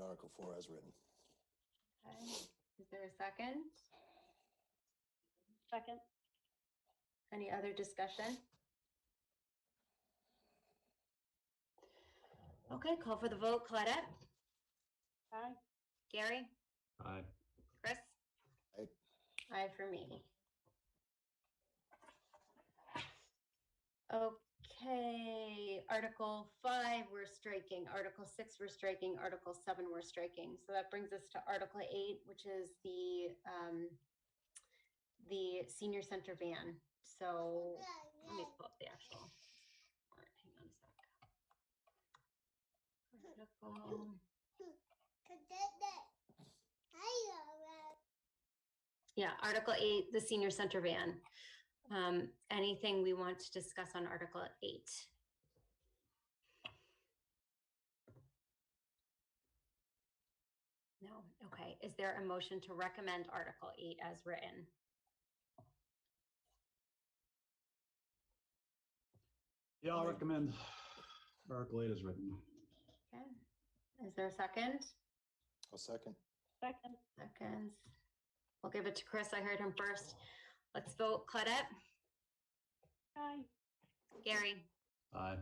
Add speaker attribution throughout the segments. Speaker 1: Article Four as written.
Speaker 2: Okay, is there a second?
Speaker 3: Second.
Speaker 2: Any other discussion? Okay, call for the vote. Claudette?
Speaker 3: Aye.
Speaker 2: Gary?
Speaker 4: Aye.
Speaker 2: Chris?
Speaker 1: Aye.
Speaker 2: Aye for me. Okay, Article five, we're striking. Article six, we're striking. Article seven, we're striking. So that brings us to Article eight, which is the, um, the senior center van. So let me pull up the actual. warrant. Hang on a sec. Article- Yeah, Article eight, the senior center van. Um, anything we want to discuss on Article eight? No, okay. Is there a motion to recommend Article eight as written?
Speaker 4: Yeah, I'll recommend Article eight is written.
Speaker 2: Okay. Is there a second?
Speaker 1: I'll second.
Speaker 3: Second.
Speaker 2: Seconds. We'll give it to Chris. I heard him first. Let's vote. Claudette,
Speaker 3: Aye.
Speaker 2: Gary,
Speaker 4: Aye.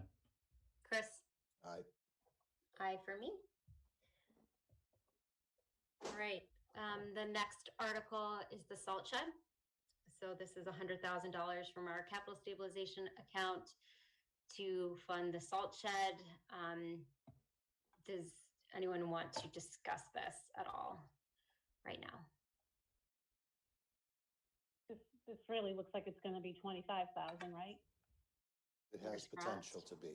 Speaker 2: Chris.
Speaker 1: Aye.
Speaker 2: Aye for me. All right, um, the next article is the salt shed. So this is hundred thousand dollars from our capital stabilization account to fund the salt shed. Um, does anyone want to discuss this at all right now?
Speaker 3: This, this really looks like it's gonna be twenty-five thousand, right?
Speaker 1: It
Speaker 2: Fingers
Speaker 1: has potential
Speaker 2: crossed.
Speaker 1: to be.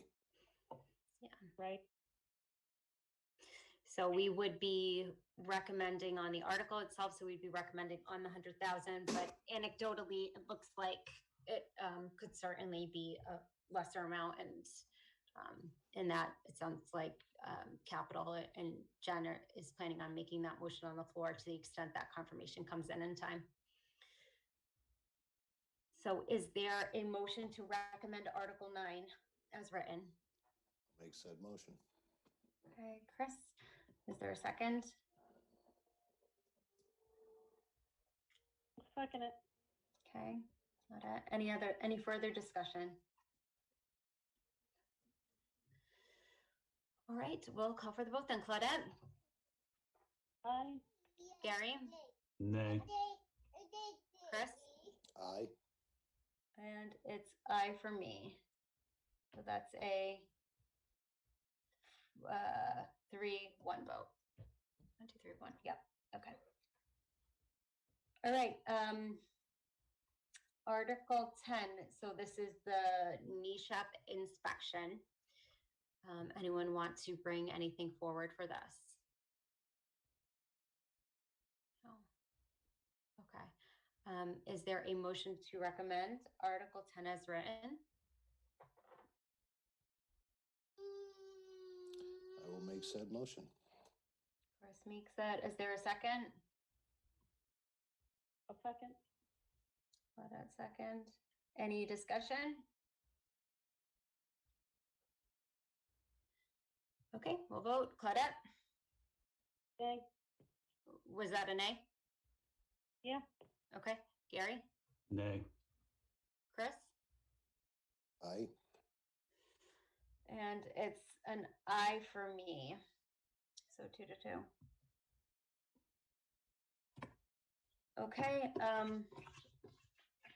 Speaker 3: Right?
Speaker 2: So we would be recommending on the article itself, so we'd be recommending on the hundred thousand, but anecdotally, it looks like it um could certainly be a lesser amount and um in that, it sounds like um capital and Jen are- is planning on making that motion on the floor to the extent that confirmation comes in in time. So is there a motion to recommend Article nine as written?
Speaker 1: Make said motion.
Speaker 2: Okay, Chris, is there a second?
Speaker 3: Second it.
Speaker 2: Okay, got it. Any other, any further discussion? All right, we'll call for the vote then. Claudette,
Speaker 3: Aye.
Speaker 2: Gary,
Speaker 4: Nay.
Speaker 2: Chris,
Speaker 1: Aye.
Speaker 2: and it's I for me. So that's a uh, three, one vote. One, two, three, one. Yep, okay. All right, um, Article ten, so this is the NESHAP inspection. Um, anyone want to bring anything forward for this? No. Okay, um, is there a motion to recommend Article ten as written?
Speaker 1: I will make said motion.
Speaker 2: Chris makes it. Is there a second?
Speaker 3: A second.
Speaker 2: Hold on a second. Any discussion? Okay, we'll vote. Claudette,
Speaker 3: Yay.
Speaker 2: was that an A?
Speaker 3: Yeah.
Speaker 2: Okay, Gary,
Speaker 4: Nay.
Speaker 2: Chris?
Speaker 1: Aye.
Speaker 2: And it's an I for me. So two to two. Okay, um,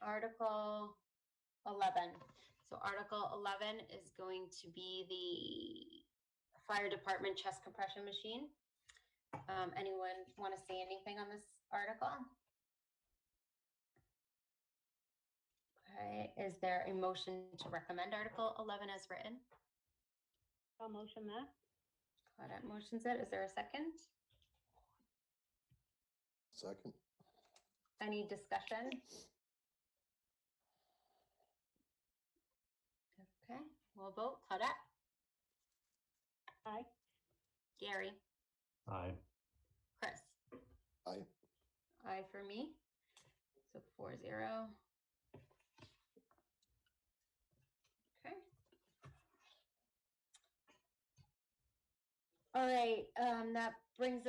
Speaker 2: Article eleven. So Article eleven is going to be the fire department chest compression machine. Um, anyone want to say anything on this article? Okay, is there a motion to recommend Article eleven as written?
Speaker 3: I'll motion that.
Speaker 2: Claudette motions it. Is there a second?
Speaker 1: Second.
Speaker 2: Any discussion? Okay, we'll vote. Claudette,
Speaker 3: Aye.
Speaker 2: Gary,
Speaker 4: Aye.
Speaker 2: Chris.
Speaker 1: Aye.
Speaker 2: Aye for me. So four zero. Okay. All right, um, that brings